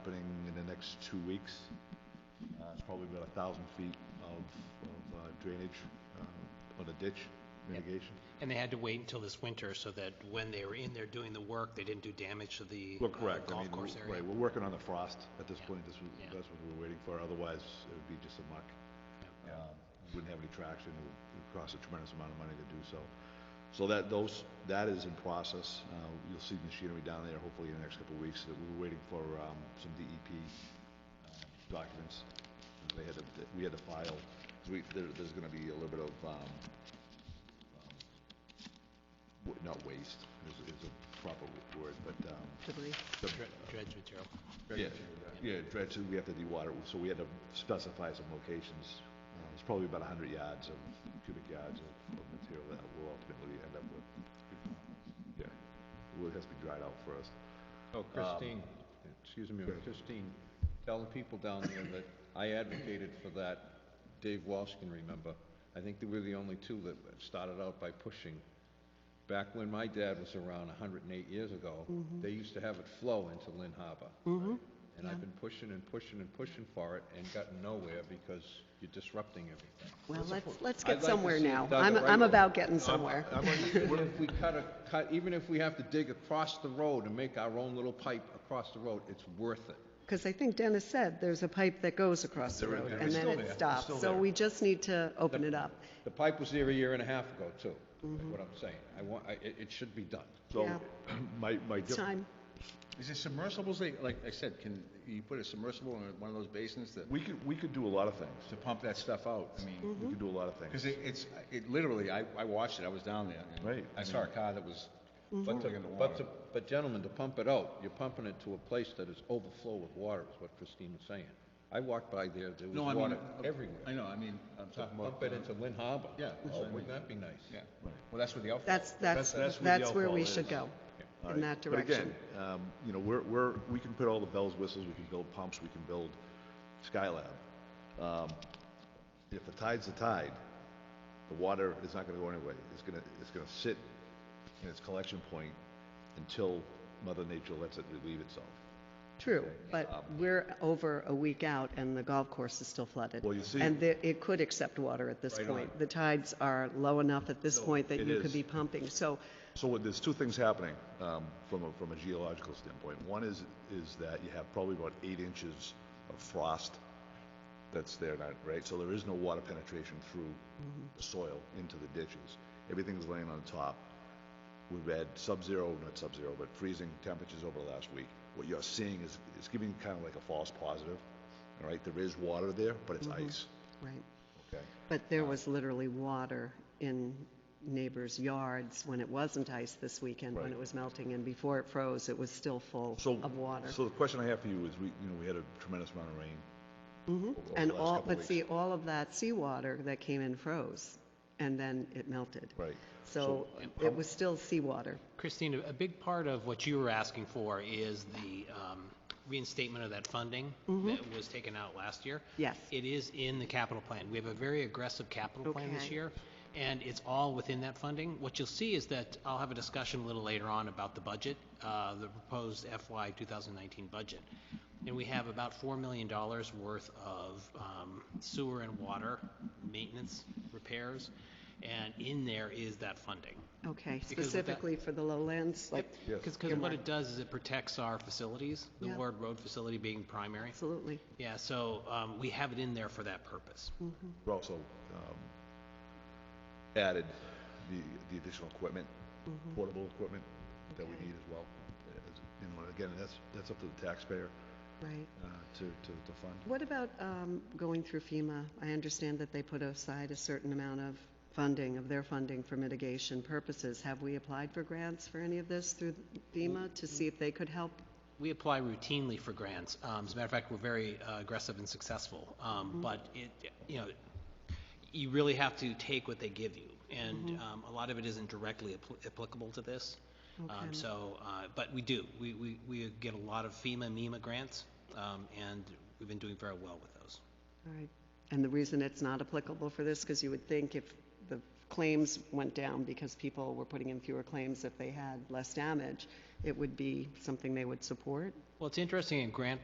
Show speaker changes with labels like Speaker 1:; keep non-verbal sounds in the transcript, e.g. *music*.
Speaker 1: opening in the next two weeks. Uh, It's probably about a thousand feet of of, uh, drainage uh, on a ditch mitigation.
Speaker 2: And they had to wait until this winter so that when they were in there doing the work, they didn't do damage to the
Speaker 1: Well,
Speaker 2: uh,
Speaker 1: correct. I mean,
Speaker 2: golf course
Speaker 1: w-
Speaker 2: area?
Speaker 1: Right, we're working on the frost at this
Speaker 2: Yeah.
Speaker 1: point. This was,
Speaker 2: Yeah.
Speaker 1: that's what we were waiting for. Otherwise, it would be just a muck.
Speaker 2: Yeah.
Speaker 1: Um, Wouldn't have any traction. It would- it would cost a tremendous amount of money to do so. So that, those, that is in process. Uh, You'll see machinery down there hopefully in the next couple of weeks. We were waiting for um, some DEP uh, documents. They had to, that we had to file, 'cause we, there, there's gonna be a little bit of, um, wa- not waste is, is a proper word, but, um,
Speaker 3: Debris.
Speaker 1: some-
Speaker 2: Dre- Dredge material.
Speaker 1: yeah, yeah, dredge, we have to de-water, it, so we had to specify some locations. Uh, It's probably about a hundred yards of cubic yards of, of material that we'll ultimately end up with. Yeah, well, it has to be dried out first.
Speaker 4: Oh, Christine, excuse me, Christine, tell the people down there that I advocated for that. Dave Walsh can remember. I think that we're the only two that started out by pushing. Back when my dad was around hundred and eight years ago, they used to have it flow into Lynn Harbor. And I've been pushing and pushing and pushing for it and gotten nowhere because you're disrupting everything.
Speaker 3: Well, let's, let's
Speaker 4: I'd
Speaker 3: get
Speaker 4: like to
Speaker 3: somewhere
Speaker 4: see it
Speaker 3: now.
Speaker 4: done
Speaker 3: I'm,
Speaker 4: the right
Speaker 3: I'm
Speaker 4: way.
Speaker 3: about getting somewhere.
Speaker 4: I'm on- Even if we cut a, cut, even if we have to dig across the road and make our own little pipe across the road, it's worth it.
Speaker 3: Because I think Dennis said there's a pipe that goes across the road and then
Speaker 4: still there.
Speaker 3: it
Speaker 4: It's
Speaker 3: stops.
Speaker 4: still
Speaker 3: So
Speaker 4: there.
Speaker 3: we just need to open it up.
Speaker 4: The pipe was there a year and a half ago, too, is what I'm saying. I want, I, it, it should be done.
Speaker 1: So,
Speaker 3: Yeah.
Speaker 1: *clears throat* my, my.
Speaker 3: It's time.
Speaker 5: Is it submersibles, they, like I said, can you put a submersible in one of those basins that,
Speaker 1: We could, we could do a lot of things.
Speaker 5: to pump that stuff out? I mean,
Speaker 3: Mm-hmm.
Speaker 1: We could do a lot of things.
Speaker 5: because it, it's, it literally, I, I watched it, I was down there. and
Speaker 1: Right, I
Speaker 5: I saw a car that was
Speaker 4: But to,
Speaker 5: floating in the
Speaker 4: but to,
Speaker 5: water.
Speaker 4: but gentlemen, to pump it out, you're pumping it to a place that is overflow with water, is what Christine was saying. I walked by there, there was
Speaker 5: No, I mean,
Speaker 4: water
Speaker 5: uh, I
Speaker 4: everywhere.
Speaker 5: know, I mean, uh, I'm
Speaker 4: To
Speaker 5: talking about.
Speaker 4: pump it into Lynn Harbor.
Speaker 5: Yeah, that's
Speaker 4: Oh,
Speaker 5: what I
Speaker 4: wouldn't that be nice?
Speaker 5: Yeah, well, that's where the outfall.
Speaker 3: That's, that's,
Speaker 1: that's where the
Speaker 3: that's where we
Speaker 1: outfall
Speaker 3: should
Speaker 1: is.
Speaker 3: go,
Speaker 1: All
Speaker 3: in
Speaker 1: right.
Speaker 3: that direction.
Speaker 1: But again, um, you know, we're, we're, we can put all the bells, whistles, we can build pumps, we can build Skylab. Um, If the tide's the tide, the water is not gonna go anywhere. It's gonna, it's gonna sit in its collection point until Mother Nature lets it relieve itself.
Speaker 3: True, but we're over a week out and the golf course is still flooded.
Speaker 1: Well, you see-
Speaker 3: And the- it could accept water at this point. The tides are low enough at this point that
Speaker 1: it
Speaker 3: you
Speaker 1: is.
Speaker 3: could be pumping. So
Speaker 1: So what- there's two things happening um, from a, from a geological standpoint. One is, is that you have probably about eight inches of frost that's there, now, right? So there is no water penetration through the soil into the ditches. Everything's laying on top. We've had sub-zero, not sub-zero, but freezing temperatures over the last week. What you're seeing is, is giving kind of like a false positive, all right? There is water there, but it's ice,
Speaker 3: Right.
Speaker 1: okay?
Speaker 3: But there was literally water in neighbors' yards when it wasn't ice this weekend, when
Speaker 1: Right.
Speaker 3: it was melting, and before it froze, it was still full
Speaker 1: So-
Speaker 3: of water.
Speaker 1: So the question I have for you is, we, you know, we had a tremendous amount of rain. over- over the
Speaker 3: Mm-hmm. And
Speaker 1: last
Speaker 3: all,
Speaker 1: couple
Speaker 3: but
Speaker 1: weeks.
Speaker 3: see, all of that seawater that came in froze, and then it melted.
Speaker 1: Right. um,
Speaker 3: So it was still seawater.
Speaker 2: Christine, a- a big part of what you were asking for is the um, reinstatement of that funding that was taken out last year.
Speaker 3: Mm-hmm. Yes.
Speaker 2: It is in the capital plan. We have a very aggressive capital plan this
Speaker 3: Okay.
Speaker 2: year, and it's all within that funding. What you'll see is that, I'll have a discussion a little later on about the budget, uh, the proposed FY 2019 budget. And we have about $4 million worth of um, sewer and water maintenance repairs, and in there is that funding.
Speaker 3: Okay,
Speaker 2: with that-
Speaker 3: specifically for the lowlands, like,
Speaker 2: Because, what it does is it protects our facilities, the
Speaker 3: Yeah.
Speaker 2: word road facility being primary.
Speaker 3: absolutely.
Speaker 2: Yeah, so um, we have it in there for that purpose.
Speaker 3: Hmm.
Speaker 1: We also um, added the, the additional equipment,
Speaker 3: Mm-hmm.
Speaker 1: portable equipment that we need as well. As- You know, and again, that's, that's up to the taxpayer
Speaker 3: Right.
Speaker 1: uh, to, to, to fund.
Speaker 3: What about um, going through FEMA? I understand that they put aside a certain amount of funding, of their funding for mitigation purposes. Have we applied for grants for any of this through FEMA to see if they could help?
Speaker 2: We apply routinely for grants. Um, As a matter of fact, we're very uh, aggressive and successful. Um,
Speaker 3: Mm-hmm.
Speaker 2: But it, you know, you really have to take what they give you. And
Speaker 3: Mm-hmm.
Speaker 2: um, a lot of it isn't directly appl- applicable to this. Um,
Speaker 3: Okay.
Speaker 2: So, uh, but we do. We, we, we get a lot of FEMA, MEMA grants, um, and we've been doing very well with those.
Speaker 3: All right. And the reason it's not applicable for this, because you would think if the claims went down because people were putting in fewer claims if they had less damage, it would be something they would support?
Speaker 2: Well, it's interesting in grant